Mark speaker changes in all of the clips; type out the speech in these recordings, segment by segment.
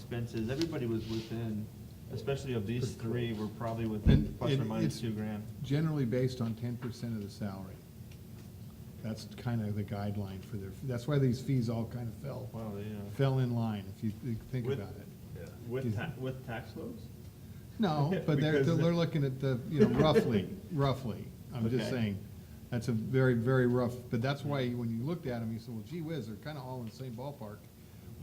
Speaker 1: expenses, everybody was within, especially of these three, were probably within
Speaker 2: And-
Speaker 1: plus or
Speaker 2: and
Speaker 1: minus
Speaker 2: it's
Speaker 1: two grand.
Speaker 2: Generally based on ten percent of the salary. That's kind of the guideline for their, that's why these fees all kind of fell,
Speaker 1: Wow, yeah.
Speaker 2: fell in line, if you thi- think
Speaker 1: With-
Speaker 2: about it.
Speaker 1: uh, With ta, with tax loads?
Speaker 2: No, but they're,
Speaker 1: Because-
Speaker 2: they're looking at the, you know, roughly, roughly. I'm just
Speaker 1: Okay.
Speaker 2: saying, that's a very, very rough, but that's why when you looked at them, you said, well, gee whiz, they're kind of all in the same ballpark.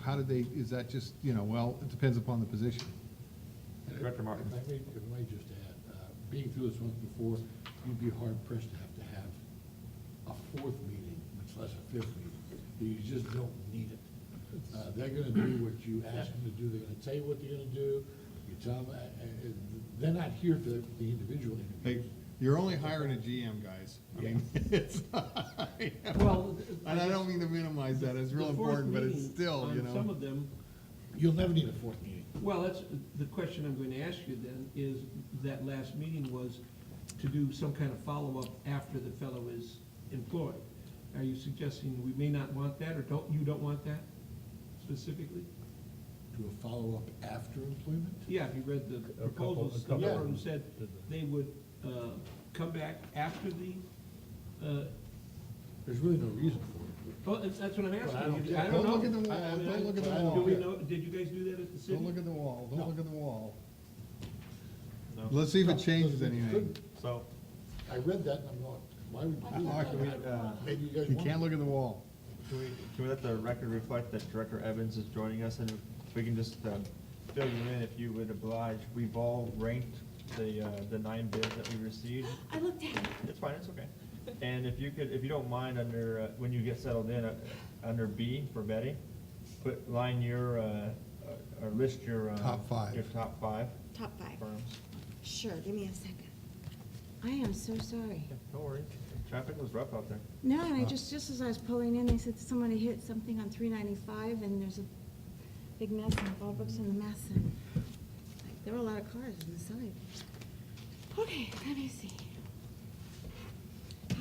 Speaker 2: How did they, is that just, you know, well, it depends upon the position.
Speaker 1: Director Martin.
Speaker 3: If I may, if I may just add, uh, being through this once before, you'd be hard pressed to have to have a fourth meeting, much less a fifth meeting. You just don't need it. Uh, They're gonna do what you ask them to do, they're gonna tell you what they're gonna do, you tell them, uh, uh, they're not here for the the individual
Speaker 2: Hey,
Speaker 3: interviews.
Speaker 2: you're only hiring a GM, guys. I mean, it's,
Speaker 4: Well,
Speaker 2: and I don't mean to minimize that, it's real
Speaker 4: The fourth
Speaker 2: important, but it's
Speaker 4: meeting
Speaker 2: still,
Speaker 4: on
Speaker 2: you know.
Speaker 4: Some of them,
Speaker 3: You'll never need a fourth meeting.
Speaker 4: well, that's, the question I'm going to ask you then is, that last meeting was to do some kind of follow-up after the fellow is employed. Are you suggesting we may not want that, or don't, you don't want that specifically?
Speaker 3: Do a follow-up after employment?
Speaker 4: Yeah, if you read the
Speaker 5: A couple- a
Speaker 4: proposals, the
Speaker 5: couple
Speaker 4: number of them
Speaker 3: of
Speaker 4: said they would uh, come back after the, uh,
Speaker 3: There's really no reason for it.
Speaker 4: well, that's that's what I'm
Speaker 3: Well, I don't
Speaker 4: asking.
Speaker 3: care.
Speaker 4: I don't know.
Speaker 2: Don't look at the wall,
Speaker 4: I- I-
Speaker 2: don't look at the
Speaker 4: Do
Speaker 2: wall.
Speaker 4: we know, did you guys do that at the city?
Speaker 2: Don't look at the wall, don't look at the wall.
Speaker 1: No.
Speaker 2: Let's see if it changes anything.
Speaker 1: So,
Speaker 3: I read that and I'm going, why would you do
Speaker 2: Oh, can we, uh,
Speaker 3: that? Maybe you guys
Speaker 2: You
Speaker 3: want
Speaker 2: can't look at the wall.
Speaker 1: can we, can we let the record reflect that Director Evans is joining us, and if we can just, um, fill you in if you would oblige. We've all ranked the, uh, the nine bids that we received.
Speaker 6: I looked at it.
Speaker 1: It's fine, it's okay. And if you could, if you don't mind, under, uh, when you get settled in, uh, under B for Betty, put, line your, uh, uh, or list your. uh,
Speaker 2: Top five.
Speaker 1: Your top five
Speaker 6: Top five.
Speaker 1: firms.
Speaker 6: Sure, give me a second. I am so sorry.
Speaker 1: Yeah, Don't worry, traffic was rough out there.
Speaker 6: No, and I just, just as I was pulling in, they said somebody hit something on three ninety-five and there's a big mess and Bob Brooks in the mess and like, there were a lot of cars on the side. Okay, let me see.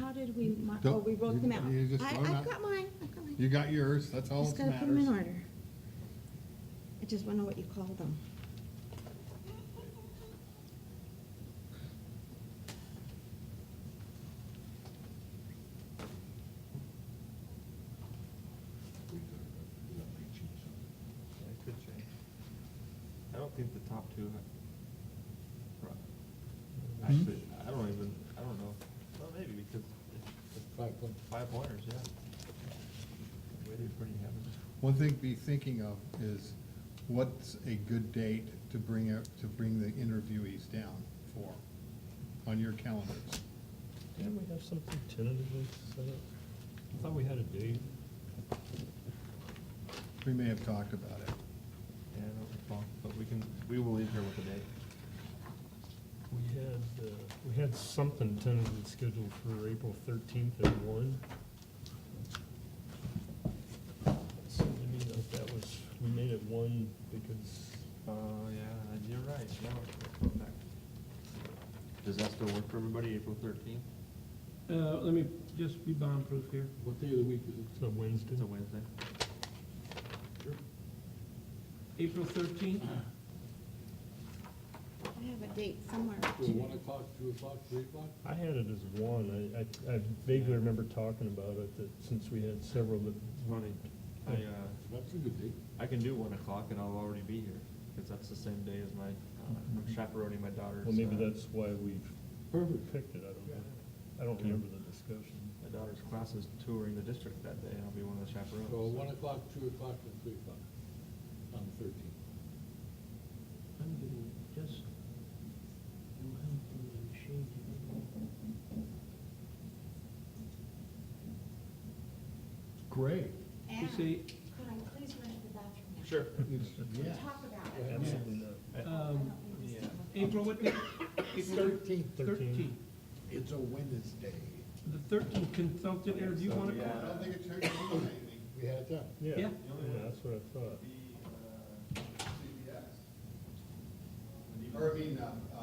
Speaker 6: How did we, mar- oh,
Speaker 2: Don't-
Speaker 6: we wrote
Speaker 2: you-
Speaker 6: them out.
Speaker 2: you just
Speaker 6: I,
Speaker 2: wrote 'em out.
Speaker 6: I've got mine, I've got mine.
Speaker 2: You got yours, that's all
Speaker 6: Just
Speaker 2: that
Speaker 6: gotta put them in
Speaker 2: matters.
Speaker 6: order. I just wanna know what you call them.
Speaker 1: Yeah, it could change. I don't think the top two. have- Right.
Speaker 2: Hmm?
Speaker 1: Actually, I don't even, I don't know. Well, maybe because it's
Speaker 3: Five point
Speaker 1: five pointers, yeah. Waited pretty heavily.
Speaker 2: One thing to be thinking of is what's a good date to bring, out- to bring the interviewees down for on your calendars?
Speaker 5: Didn't we have something tentatively set up? I thought we had a date.
Speaker 2: We may have talked about it.
Speaker 1: Yeah, I don't recall, but we can, we will leave here with a date.
Speaker 5: We had, uh, we had something tentatively scheduled for April thirteenth at one. So I mean, that- that was, we made it one because,
Speaker 1: Oh, yeah, you're right, now I go back. Does that still work for everybody, April thirteenth?
Speaker 4: Uh, Let me just be bomb-proof here.
Speaker 3: What day of the week is
Speaker 5: it's a Wednesday.
Speaker 1: It's a Wednesday.
Speaker 4: April thirteenth?
Speaker 1: Uh-huh.
Speaker 6: I have a date somewhere.
Speaker 3: it? Till one o'clock, two o'clock, three o'clock?
Speaker 5: I had it as one. I, I- I vaguely remember talking about it, that since we had several that
Speaker 1: Funny. I, uh,
Speaker 3: That's a good date.
Speaker 1: I can do one o'clock and I'll already be here, because that's the same day as my, uh, I'm chaperoning my daughter's.
Speaker 5: Mm-hmm. Well, maybe
Speaker 1: uh,
Speaker 5: that's why we
Speaker 3: Perfect.
Speaker 5: picked it, I don't know. I don't remember the discussion.
Speaker 1: My daughter's class is touring the district that day, and I'll be one of the chaperones.
Speaker 3: So one o'clock, two o'clock, and three o'clock on the thirteenth.
Speaker 4: I'm getting just, I'm helping my machine here.
Speaker 2: Great.
Speaker 4: You see,
Speaker 6: Could I please run to the bathroom now?
Speaker 1: Sure.
Speaker 2: Yeah.
Speaker 6: Talk about it.
Speaker 5: Absolutely not.
Speaker 4: um,
Speaker 1: Yeah.
Speaker 4: April what day? April
Speaker 3: Thirteenth,
Speaker 4: thirteenth.
Speaker 3: it's a Wednesday.
Speaker 4: The thirteenth consultant interview, wanna
Speaker 1: So,
Speaker 4: call?
Speaker 1: yeah.
Speaker 2: think it turned into anything.
Speaker 3: We had it done.
Speaker 5: Yeah,
Speaker 4: Yeah.
Speaker 5: yeah, that's what I thought.
Speaker 2: The, uh, CBS. Or, I mean, uh, uh,